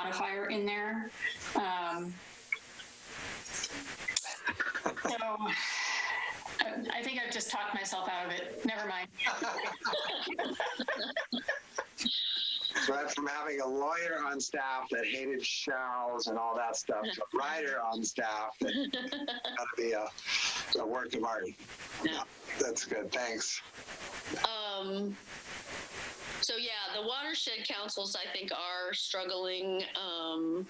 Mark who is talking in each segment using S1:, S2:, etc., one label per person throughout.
S1: modifier in there. Um, so I I think I've just talked myself out of it. Never mind.
S2: Went from having a lawyer on staff that hated shells and all that stuff to a writer on staff that got to be a, a work of art.
S3: Yeah.
S2: That's good. Thanks.
S3: Um, so yeah, the watershed councils I think are struggling, um,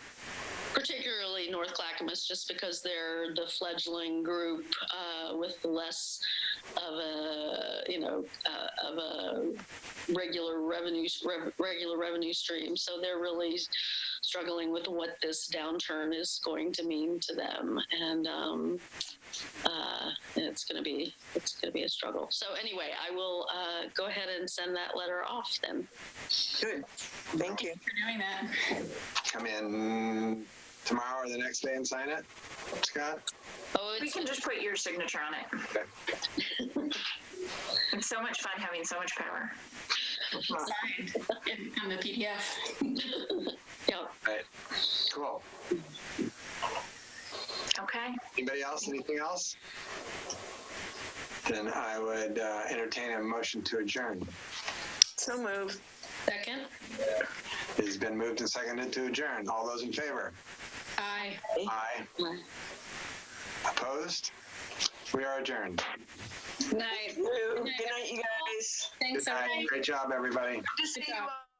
S3: particularly North Clackamas, just because they're the fledgling group uh, with less of a you know uh, of a regular revenue rev, regular revenue stream. So they're really struggling with what this downturn is going to mean to them, and um, uh, it's going to be it's going to be a struggle. So anyway, I will uh, go ahead and send that letter off then.
S4: Good. Thank you.
S1: For doing that.
S2: Come in tomorrow or the next day and sign it, Scott.
S3: Oh,
S5: We
S3: it's,
S5: can just put your signature on it. It's so much fun having so much power.
S1: Signed in- on the PDF.
S3: yeah.
S2: Right. Cool.
S5: Okay,
S2: Anybody else? Anything else? Then I would uh, entertain a motion to adjourn.
S4: So moved.
S3: Second.
S2: It has been moved and seconded to adjourn. All those in favor?
S1: Aye.
S2: Aye. Opposed? We are adjourned.
S3: Night.
S4: Good night, you guys.
S1: Thanks,
S2: Good night.
S1: everyone.
S2: Great job, everybody.
S4: Good to see you all.